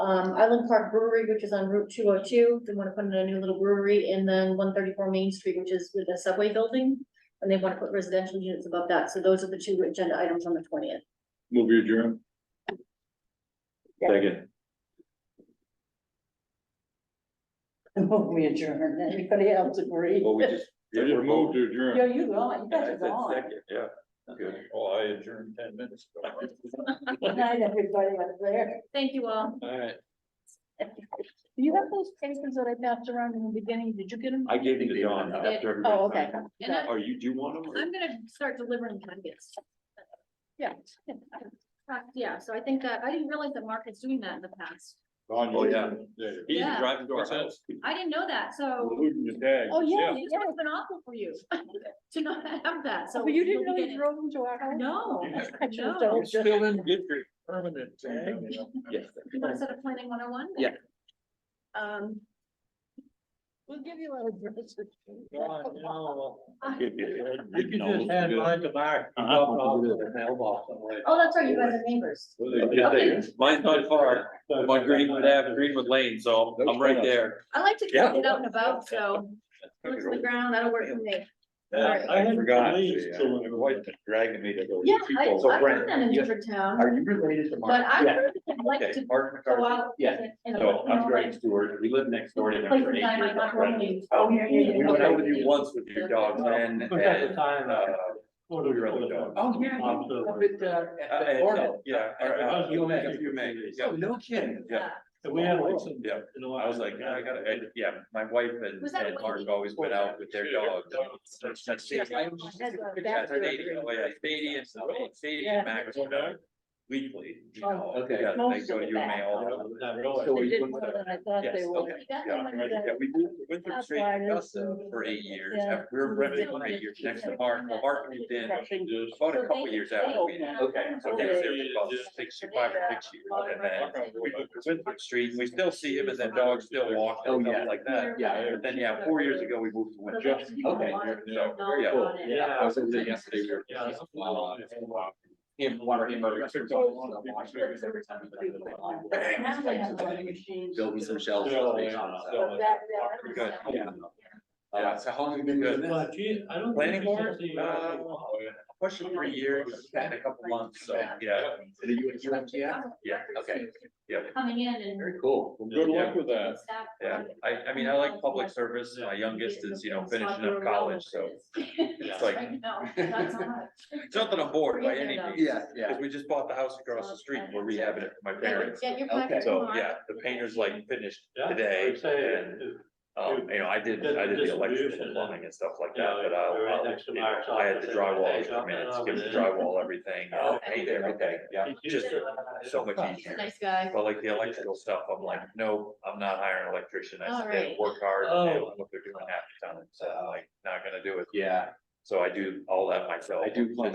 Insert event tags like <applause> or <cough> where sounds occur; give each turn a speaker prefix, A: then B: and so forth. A: Um, Island Park Brewery, which is on Route two oh two, they wanna put in a new little brewery, and then one thirty-four Main Street, which is with the subway building. And they wanna put residential units above that, so those are the two agenda items on the twentieth.
B: Move your adjourn.
C: Yeah.
B: Second.
C: We adjourn, anybody else agree?
D: Well, we just.
B: You just moved to
C: Yo,
B: adjourn.
C: you gone, you
D: I
C: guys are
D: said
C: gone.
D: second, yeah, good.
B: Well, I adjourned ten minutes ago.
C: Good night, everybody out there.
A: Thank you all.
B: All right.
C: Do you have those papers that I passed around in the beginning? Did you get them?
D: I gave them to Dawn after. everybody
C: Oh, okay.
D: signed.
A: And I-
D: Are you, do you want them?
A: I'm gonna start delivering packets.
C: Yeah.
A: Uh, Yeah, so I think that, I didn't realize that Mark is doing that in the past.
B: Don,
D: Oh,
B: you-
D: yeah.
B: there you
D: He's
A: Yeah.
D: driving to
B: go.
D: our
B: What's that?
D: house.
A: I didn't know that,
B: We're
A: so
B: Losing your tag.
C: Oh, yeah,
A: this
C: yeah.
A: must have been awful for you <laughs> to not have that, so.
C: But Oh, you didn't
A: you'll
C: know
A: be
C: you drove them to our
A: getting-
C: house?
A: No,
B: Yeah.
C: <laughs> I just
A: no.
B: You're
C: don't.
B: still in, get your permanent tag.
D: Yes.
A: You wanna set up planning one oh one?
D: Yeah.
C: Um. We'll give you our addresses.
B: You can
D: You just Uh-huh.
B: hand mine to Mark.
A: Oh, that's right, you guys are neighbors.
D: Mine's not far, I'm on Greenwood <laughs> Ave, Greenwood Lane, so I'm right there.
A: I like to
D: Yeah.
A: get out and about, so. Look to the ground, that'll work for me.
B: Yeah, I had
D: Forgot to, uh,
B: leave
D: yeah.
B: till my wife was dragging me to those
A: Yeah, I,
B: people.
A: I've done that in different towns,
D: you related to
A: but I really like
D: Okay,
A: to
D: Mark
A: go
D: McCarthy.
A: out.
D: Yeah.
A: and- and
D: So
A: look, you know,
D: I'm Greg
A: like,
D: Stewart, we live next door to him for
A: Places
D: eight
A: I might
D: years.
A: not
D: I'm
A: want
D: friends.
A: to. Oh, yeah, yeah,
D: We went out with you once with your
A: <laughs>
D: dog, and, and, uh,
E: Oh, yeah.
B: Up
D: Uh, and- Yeah, or, uh,
E: You make
D: yeah,
E: it.
D: you make it,
A: Oh,
D: yeah.
E: no kidding.
D: Yeah,
E: We had like some.
D: Yeah. I was like, I gotta, I- yeah, my wife and,
A: Was that
D: and Mark
A: Wendy?
D: always went out with their dogs. That's- that's
E: Yeah.
D: stadium- that's stadium, oh, yeah, Stadium, oh,
C: Yeah.
D: stadium, Max, weekly. you know,
E: Okay.
D: yeah, They
C: Most
D: go
C: of
D: to
C: the
D: U M A
C: back.
D: all the time.
E: So
C: They
E: we
C: didn't
E: went
C: more
E: with
C: than I thought they
D: Yes,
C: would.
D: okay. Yeah, yeah, we moved to Winthrop Street
C: Arthritis
D: for eight
C: and-
D: years,
C: yeah.
D: after- we were renting for eight years next to Mark, Well, Mark moved in about a couple years after we did.
E: Okay.
D: So they were there for about six, five, or six years, and then we went to Winthrop Street, we still see him, and the dogs still walk
E: Oh,
D: and
E: yeah.
D: stuff like that.
E: yeah.
D: But then, yeah, four years ago, we moved to Winthrop.
E: Just- okay,
D: so, yeah.
E: Yeah.
D: I was in there yesterday, we were.
E: Yeah.
D: Wow. Him, water, him, over. <laughs>
C: Now they have a machine.
D: Building some shelves.
B: Yeah.
C: But that-
D: Pretty
C: that-
D: good. Yeah, Uh, so how long have you been doing this?
E: I don't.
D: Planning board? uh,
E: uh,
D: Question for years, had a couple months, so, yeah.
E: The UMTF?
D: Yeah, okay, yeah.
A: Coming in and.
D: Very cool.
B: Good luck with that.
A: Staff.
D: Yeah, I, I mean, I like public service, my youngest is, you know, finishing up college, so it's like,
A: I know,
D: <laughs>
A: that's all right.
D: it's nothing I'm bored by any means.
E: Yeah, yeah.
D: Cause we just bought the house across the street, and we're rehabbing it for my parents,
A: Get your
E: Okay.
A: packet
D: so,
A: tomorrow.
D: yeah, the painter's like finished today, and, um, you know, I did, I did the electric and plumbing and stuff like that, but I'll, I'll, you know, I had the drywall, I mean, it's gives the drywall everything, I'll paint everything, yeah, just so much easier.
A: Nice guy.
D: But like the electrical stuff, I'm like, no, I'm not hiring an electrician. I said, they
A: Alright.
D: work hard and they
E: Oh.
D: don't know what they're doing half the time. So I'm like, not gonna do it.
E: Yeah.
D: So I do all that myself.
E: I do plan-